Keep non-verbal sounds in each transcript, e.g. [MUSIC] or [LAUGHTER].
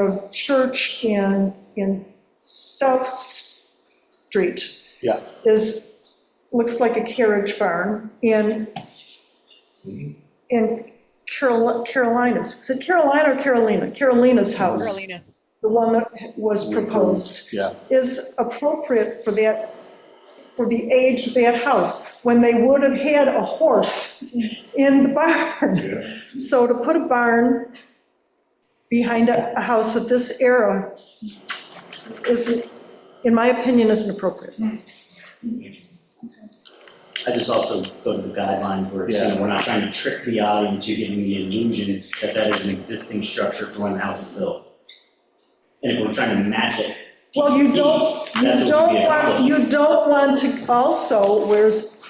of Church and, and South Street Yeah. is, looks like a carriage barn, and, and Carol- Carolina's, is it Carolina or Carolina? Carolina's house, Carolina. the one that was proposed Yeah, is appropriate for that, for the age of that house, when they would have had a horse in the barn. Yeah, So to put a barn behind a, a house of this era isn't, in my opinion, isn't appropriate. I just also go to the guidelines where, you know, we're not trying to trick the eye into giving the illusion that that is an existing structure for when the house was built. And if we're trying to match it. Well, you don't, piece, you that's what don't we get. want, you don't want to, also, where's,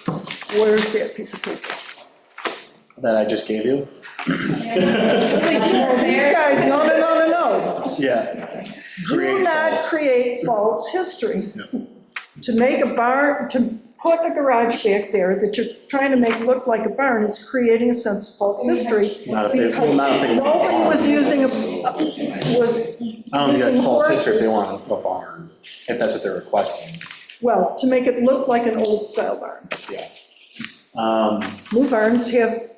where's that piece of paper? that I just gave you? These guys, no, no, no, no, no. Yeah. Do Create not false. create false history. To make a barn, to put a garage shack there that you're trying to make look like a barn is creating a sense of false history. Not if they, well, not if they. want a Nobody barn. was using, a was, I don't think that's using false history if they horses. want a barn, if that's what they're requesting, well, to make it look like an old-style barn. yeah. Um, New barns have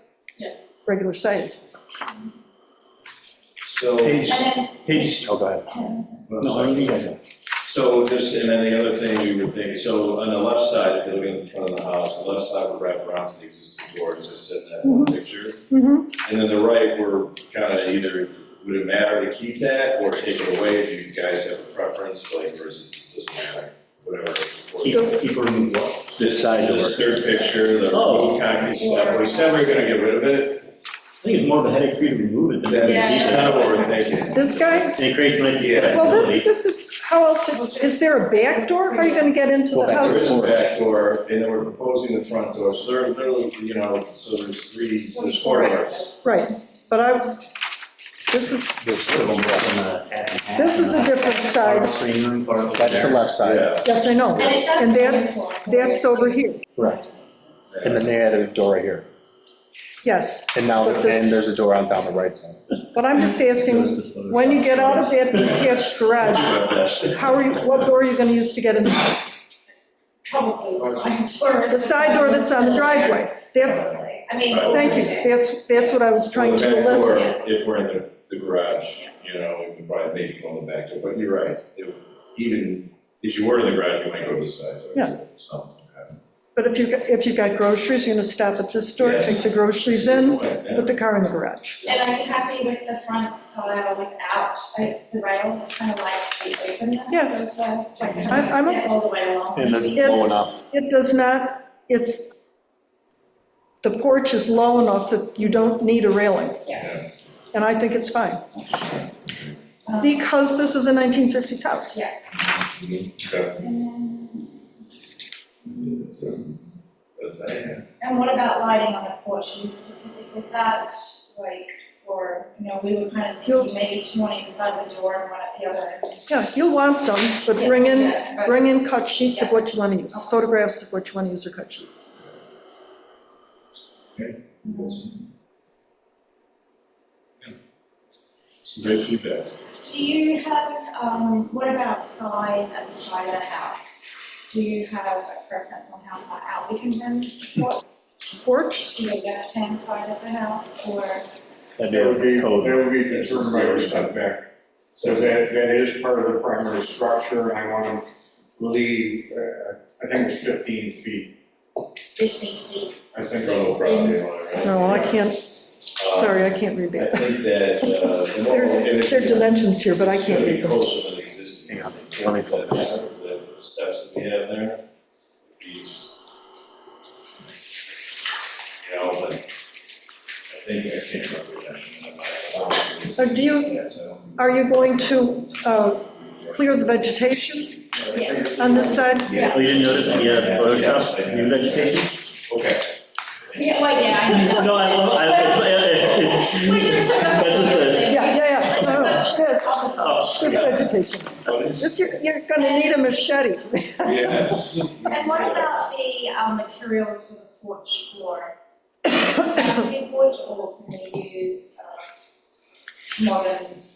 regular siding. so, And then, pages, oh, go ahead. no, I you guys know. so just, and then the other thing we were thinking, so on the left side, if you're looking at the front of the house, the left side would wrap around to the existing door, as I said in that one picture. Mhm. And then the right, we're kind of either, would it matter to keep that or take it away? Do you guys have a preference, like, or is it, doesn't matter, whatever? Keep, keep removing what? This Side door. This third picture, the Oh. roof concrete slab, we said we we're gonna get rid of it, I think it's more of a headache for you to remove it than to that's keep it. kind of what we're thinking. This guy, And it creates nice Yeah. well, thi- accessibility. this is, how else, is there a back door? How are you going to get into Go the back to house? There is a Doors. back door, and then we're proposing the front door, so there are literally, you know, so there's three, there's four doors. Right, but I, this is, There's sort of a block on the half and half. This is a different Part of side. the screen room, part of That's the there. left side, Yeah. Yes, I know. And it does- And that's, that's over here, correct. And then they added a door right here, yes. and now, But this- and there's a door on down the right side. But I'm just Goes asking, to the when you get out of that detached garage, how are you, what door are you going to use to get in the house? Probably the side door. The side door that's on the driveway. That's, I mean. thank you, that's, that's what I was trying Well, the to back door, elicit. If we're in the, the garage, you know, we could probably maybe go in the back door, but you're right. If- Even if you were in the garage, you might go to the side door. Yeah. So, okay. But if you've, got- if you've got groceries, you're going to stop at this door, Yes. take the groceries in, Yeah. put the car in the garage. And I'm happy with the front style without, I- the rail kind of likes the openness. Yeah. of the- Like I'm- kind I'm of a- step all the way along. And it's low It's- enough, It does not, it's, the porch is low enough that you don't need a railing. Yeah. And I think it's fine, Um, because this is a 1950s house. Yeah. Okay. And then- So, That's, yeah. and what about lighting on the porch? Are you specific with that? Like, or, you know, we were kind of You'll- thinking maybe two on either side of the door and one at the other. end. Yeah, you'll want some, but bring in, Yeah, but- bring in cut sheets of what you want to use, photographs of what you want to use or cut sheets. Some great feedback. Do you have, um, what about size at the side of the house? Do you have a preference on how far out we can run what Porch, to the left-hand side of the house or? that'd be That would be, a that code. would be determined by your setback. So that, that is part of the primary structure, and I want to leave, uh, I think it's 15 feet. Fifteen feet. I think Total property owner, right? no, I can't, Um, sorry, I can't read I that. think that, uh, the more. There there are dimensions here, but I can't read It's gonna them. be closer to the existing. Hang on, let me pull it The steps that we have there, these. You know, but I think I can't remember that. So do you- Are you going to uh, clear the vegetation Yes. on this side? Oh, you didn't notice the uh, Photoshop, new vegetation? [LAUGHS] [LAUGHS] Okay. Yeah, well, yeah, I know. No, I love, uh, I, it's, it- it- We just took a. That's just a- Yeah, yeah, yeah, no, no, yes, oh, clear the vegetation. What is- If You're, you're going to need a machete. [LAUGHS] Yes. And what about the um, materials for the porch floor? Can it be wood or can we use um, uh, modern